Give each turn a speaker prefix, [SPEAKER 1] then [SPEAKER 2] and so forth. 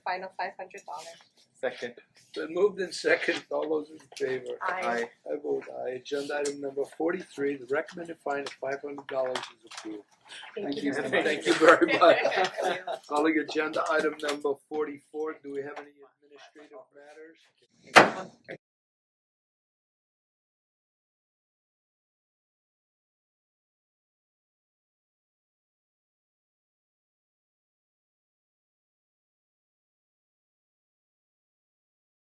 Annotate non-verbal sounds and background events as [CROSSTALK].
[SPEAKER 1] fine of five hundred dollars.
[SPEAKER 2] Second,
[SPEAKER 3] Been moved in second, all those in favor?
[SPEAKER 2] aye.
[SPEAKER 3] I vote aye, agenda item number forty-three, the recommended fine of five hundred dollars is approved.
[SPEAKER 2] Thank
[SPEAKER 3] [LAUGHS]
[SPEAKER 2] you.
[SPEAKER 3] Thank you very much. [LAUGHS] Calling agenda item number forty-four, do we have any administrative matters?